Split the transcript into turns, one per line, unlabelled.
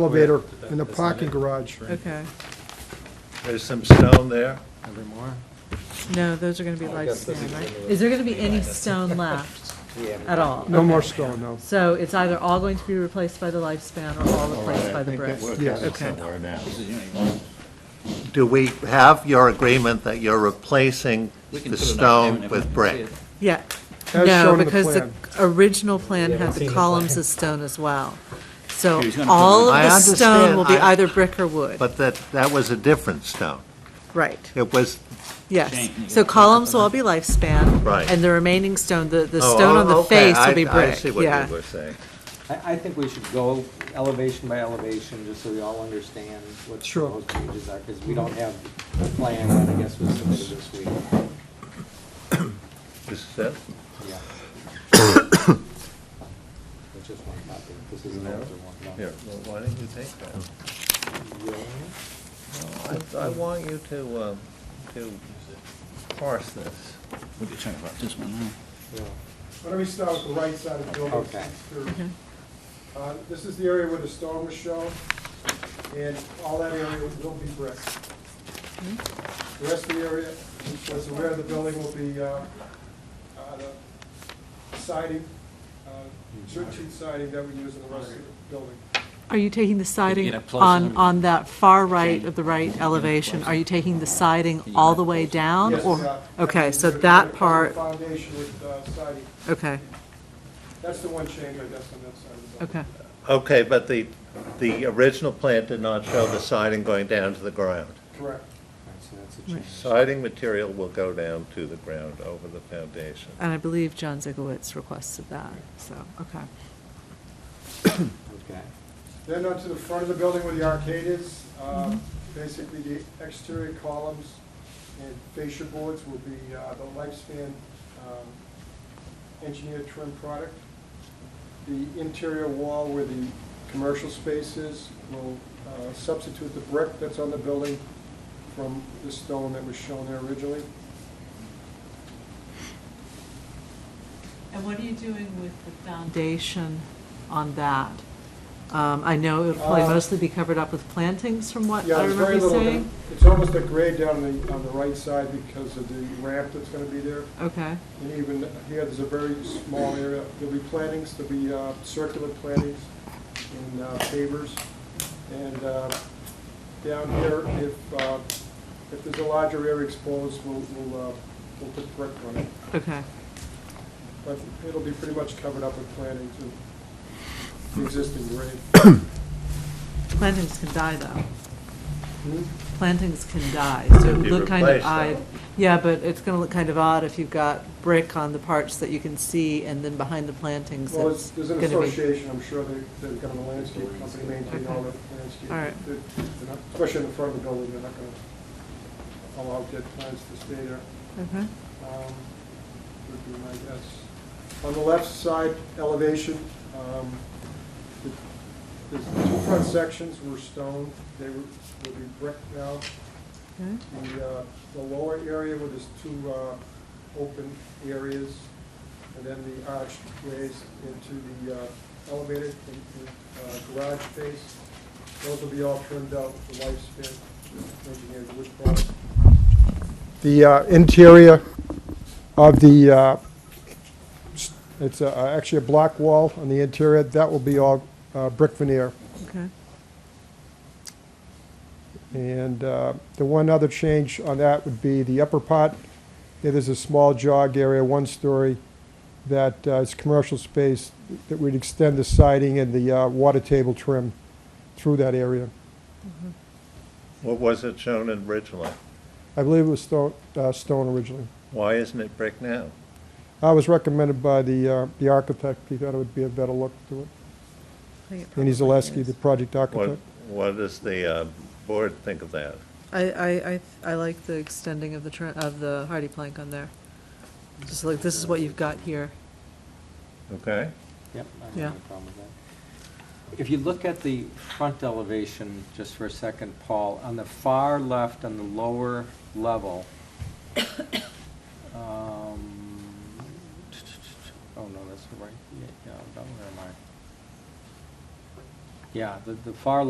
elevator in the parking garage.
Okay.
There's some stone there.
Every more?
No, those are going to be lifespan, right?
Is there going to be any stone left at all?
No more stone, no.
So it's either all going to be replaced by the lifespan or all replaced by the brick?
Yeah, it's-
somewhere now.
Do we have your agreement that you're replacing
We can
the
put it up there and
stone
if
with
we see
brick?
it.
Yeah.
As shown
No,
in the
because the
plan.
original plan had the columns of stone as well. So
He was gonna put
all of
them- I
the stone will be
understand, I-
either brick or wood.
But that, that was a different stone.
Right,
It was,
yes.
Shane, you
So
gotta-
columns will all be lifespan.
Right.
And the remaining stone, the, the
oh,
stone on the
okay,
face will be
I-
brick.
I see what
Yeah.
you were saying.
I, I think we should go elevation by elevation, just so we all understand what the
Sure.
proposed changes are, because we don't have the plan that I guess was submitted this week.
This is it?
Yeah. It's just one copy. This is an older one.
Here, well, why don't you take that?
Yeah.
Oh, I, I want you to, um, to parse this.
We could talk about this one now.
Yeah.
Why don't we start with the right side of the building?
Okay.
Okay. Uh, This is the area where the stone was shown, and all that area will be brick. The rest of the area, that's where the building will be, uh, uh, the siding, uh, church sheet siding that we use in the rest of the building.
Are you taking the siding
up close
on,
and-
on that far right of the right elevation? Are you taking the siding all the way down?
Yes,
or-
uh,
Okay, so
we're
that
gonna cover
part,
the Foundation with uh, siding.
okay,
That's the one change, I guess, on that side of the building.
okay.
Okay, but the, the original plan did not show the siding going down to the ground.
Correct.
So that's a change.
Siding material will go down to the ground over the foundation.
And I believe John Zigowitz requested that, so, okay.
Okay.
Then on to the front of the building where the arcade is, um, basically the exterior columns and fascia boards will be uh, the lifespan um, engineered trim product. The interior wall where the commercial space is will uh, substitute the brick that's on the building from the stone that was shown there originally.
And what are you doing with the foundation on that? Um, I know it'll probably
Uh,
mostly be covered up with plantings from what
Yeah,
I
there's
remember
very
you
little.
saying?
It's almost a grade down on the, on the right side because of the ramp that's gonna be there.
Okay,
And even here, there's a very small area, there'll be plantings, there'll be uh, circular plantings and uh, pavers. And uh, down here, if, uh, if there's a larger area exposed, we'll, we'll, uh, we'll put brick on it.
okay.
But it'll be pretty much covered up with plantings and the existing grade.
Plantings can die, though.
Hmm?
Plantings can die, so it
Could
would
be
look kind of
replaced, though.
odd. Yeah, but it's going to look kind of odd if you've got brick on the parts that you can see, and then behind the plantings,
Well, it's-
it's
there's an
going to be...
association, I'm sure they, they've got a landscape company maintain all the landscape.
All right.
They're- they're not- Especially in the front of the building, they're not going to allow dead plants to stay there.
Okay.
um, would be my guess. On the left side elevation, um, the the two front sections were stone, they were, will be brick now.
Okay.
The, uh, the lower area where there's two uh, open areas, and then the archways into the uh, elevated and- and, uh, garage space, those will be all trimmed out for lifespan, engineered wood product. The uh, interior of the, uh, s- it's uh, actually a block wall on the interior, that will be all uh, brick veneer.
Okay.
And uh, the one other change on that would be the upper part. There is a small jog area, one story, that uh, is commercial space, that we'd extend the siding and the uh, water table trim through that area.
What was it shown in originally?
I believe it was stone, uh, stone originally.
Why isn't it brick now?
I was recommended by the, uh, the architect, he thought it would be a better look to it.
I think it
Andy
probably
Zaleski,
is.
the project
What,
architect.
what does the uh, board think of that?
I, I, I, I like the extending of the, tr- of the hardy plank on there. Just like, this is what you've got here.
Okay?
Yep, I don't
Yeah.
have a problem with that. If you look at the front elevation, just for a second, Paul, on the far left, on the lower level, um, oh, no, that's the right, yeah, yeah, where am I? Yeah, the, the far